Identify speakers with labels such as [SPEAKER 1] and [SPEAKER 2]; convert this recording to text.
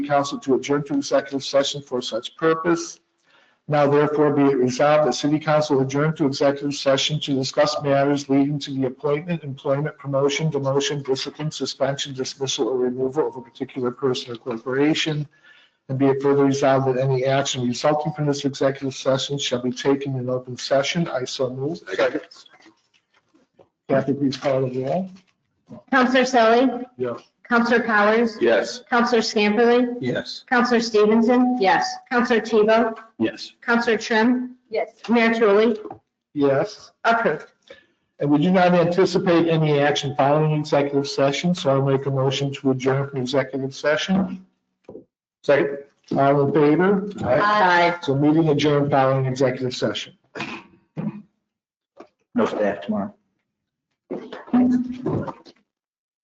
[SPEAKER 1] council to adjourn to executive session for such purpose. Now therefore be it resolved that city council adjourn to executive session to discuss matters leading to the appointment, employment, promotion, demotion, discipline, suspension, dismissal, or removal of a particular person or corporation. And be it further resolved that any action resulting from this executive session shall be taken in open session. I so move.
[SPEAKER 2] Second.
[SPEAKER 1] Kathy, please call the roll.
[SPEAKER 3] Counselor Selly?
[SPEAKER 1] Yes.
[SPEAKER 3] Counselor Powers?
[SPEAKER 2] Yes.
[SPEAKER 3] Counselor Scamperly?
[SPEAKER 2] Yes.
[SPEAKER 3] Counselor Stevenson? Yes. Counselor Tebow?
[SPEAKER 2] Yes.
[SPEAKER 3] Counselor Trim? Yes. Mayor Tully?
[SPEAKER 1] Yes.
[SPEAKER 3] Approved.
[SPEAKER 1] And we do not anticipate any action following executive session, so I'll make a motion to adjourn from executive session. Second. All in favor?
[SPEAKER 3] Aye.
[SPEAKER 1] So meeting adjourned following executive session.
[SPEAKER 2] No staff tomorrow.